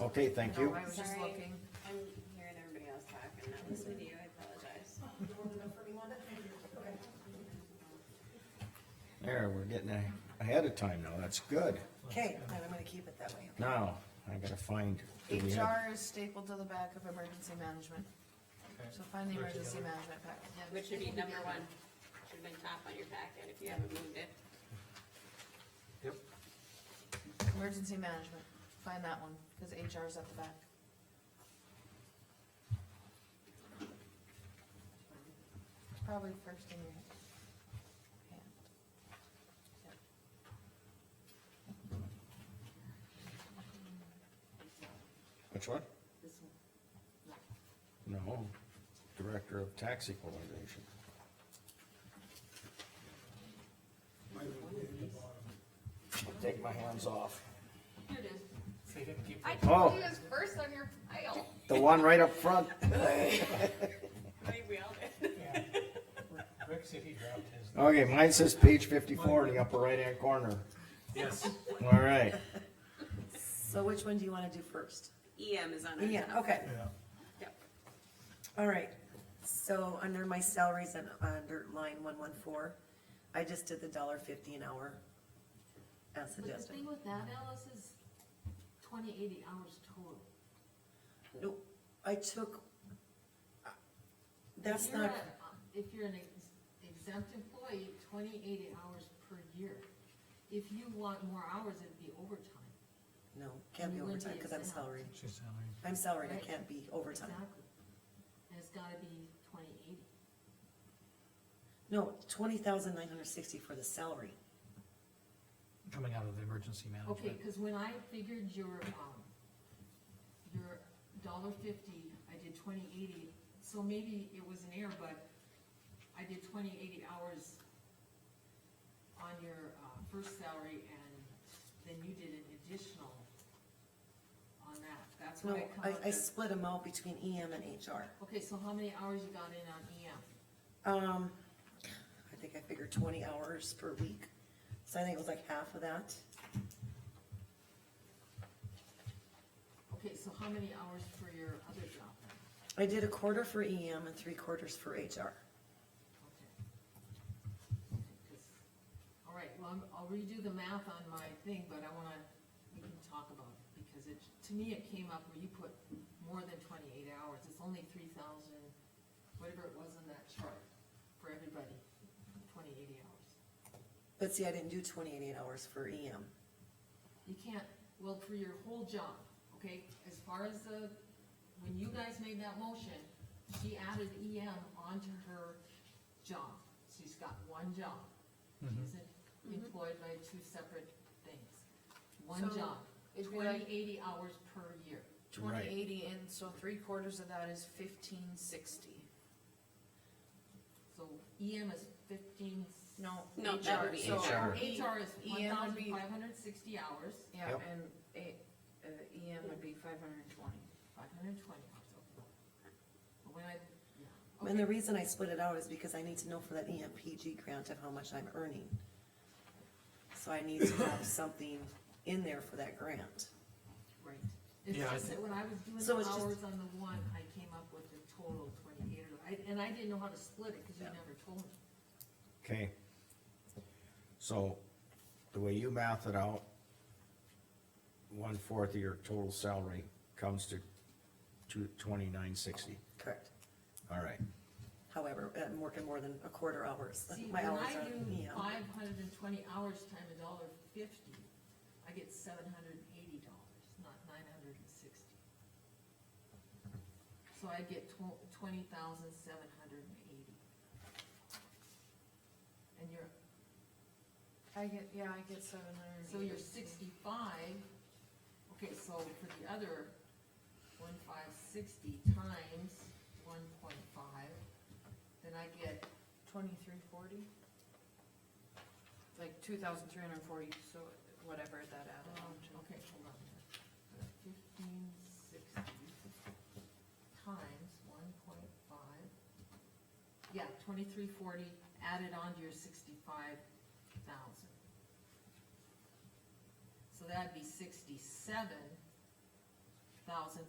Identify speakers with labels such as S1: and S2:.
S1: Okay, thank you.
S2: No, I was just
S3: Sorry.
S2: looking.
S3: I'm hearing everybody else talk and that was with you, I apologize.
S1: There, we're getting a- ahead of time now, that's good.
S4: Okay, and I'm gonna keep it that way.
S1: Now, I gotta find. do we have-
S2: HR is stapled to the back of emergency management. So find the emergency management packet. yeah.
S3: Which should be number one, should have been top on your packet if you haven't moved it.
S5: Yep.
S2: Emergency management, find that one, cause HR is at the back. It's probably first in your hand.
S1: Which one?
S3: This one.
S1: No, Director of Tax Equalization. I'll Take my hands off.
S3: Here it is.
S5: So you didn't keep
S3: I
S1: Oh.
S3: told you it was first on your pile.
S1: The one right up front.
S3: I think we all did.
S5: Yeah. Rick said he dropped his.
S1: Okay, mine says page fifty-four in the upper right-hand corner.
S5: Yes.
S1: All right,
S4: So which one do you wanna do first?
S3: EM E is on our
S4: Yeah,
S3: top.
S4: okay,
S3: Yep.
S4: all right. So under my salaries and under line one one four, I just did the dollar fifty an hour as
S6: But the
S4: suggested.
S6: thing with that, Alice, is twenty, eighty hours total.
S4: No, I took, uh, that's
S6: If you're
S4: not,
S6: a- uh, If you're an ex- exempt employee, twenty, eighty hours per year. If you want more hours, it'd be overtime.
S4: no, can't be
S6: You wouldn't be
S4: overtime, cause I'm
S6: exempt.
S4: salaried.
S5: She's uh, salary.
S4: I'm salaried, I
S6: Right.
S4: can't be overtime.
S6: Exactly. And it's gotta be twenty, eighty.
S4: No, twenty thousand nine hundred sixty for the salary.
S5: Coming out of the emergency
S6: Okay,
S5: management.
S6: cause when I figured your, um, your dollar fifty, I did twenty eighty, so maybe it was an error, but I did twenty eighty hours on your, uh, first salary, and then you did an additional on that, that's
S4: No,
S6: why it
S4: I,
S6: comes up
S4: I
S6: as.
S4: split them out between EM and HR.
S6: Okay, so how many hours you got in on E EM?
S4: Um, I think I figured twenty hours per week, so I think it was like half of that.
S6: Okay, so how many hours for your other job?
S4: I did a quarter for EM and three quarters for HR.
S6: Okay. All right, well, I'm- I'll redo the math on my thing, but I wanna, we can talk about it, because it, to me, it came up where you put more than twenty-eight hours, it's only three thousand, whatever it was in that chart, for everybody, twenty-eight hours.
S4: But see, I didn't do twenty eighty hours for E EM.
S6: You can't, well, for your whole job, okay, as far as the, when you guys made that motion, she added EM onto her job. She's got one job. She isn't employed by two separate things. One
S2: Mm-hmm. So,
S6: job,
S2: it'd be
S6: twenty,
S2: like-
S6: eighty hours per year.
S1: Right.
S2: Twenty eighty, and so three quarters of that is fifteen sixty.
S6: So EM is fifteen.
S2: No.
S3: No, that would be
S2: so-
S1: HR.
S6: HR is one
S2: EM would be-
S6: thousand five hundred sixty hours,
S2: Yeah,
S1: Yep.
S2: and A, uh, EM would be five hundred and twenty.
S6: five hundred twenty hours, okay. But When I, yeah.
S4: And the
S6: Okay.
S4: reason I split it out is because I need to know for that E EMPG grant of how much I'm earning. So I need to have something in there for that grant.
S6: Right. It's
S5: Yeah, I
S6: just
S5: thi-
S6: that when I was doing
S4: So
S6: the
S4: it's just-
S6: hours on the one, I came up with a total of twenty-eight, or- I- and I didn't know how to split it, cause you
S4: Yeah.
S6: never told me.
S1: okay. So, the way you math it out, one-fourth of your total salary comes to two, twenty-nine sixty.
S4: Correct.
S1: All right,
S4: However, I'm working more than a quarter hours.
S6: See,
S4: My
S6: when
S4: hours
S6: I
S4: are E
S6: do
S4: EM.
S6: five hundred and twenty hours time a dollar fifty, I get seven hundred and eighty dollars, not nine hundred and sixty. So I get tw- twenty thousand seven hundred and eighty. And you're,
S2: I get, yeah, I get seven hundred.
S6: So you're sixty-five, okay, so for the other one five sixty times one point five, then I get,
S2: Twenty-three forty? Like two thousand three hundred and forty, so whatever that added
S6: um,
S2: on to.
S6: okay, hold on. here. Fifteen sixty times one point five, yeah, twenty-three forty added on to your sixty-five thousand. So that'd be sixty-seven thousand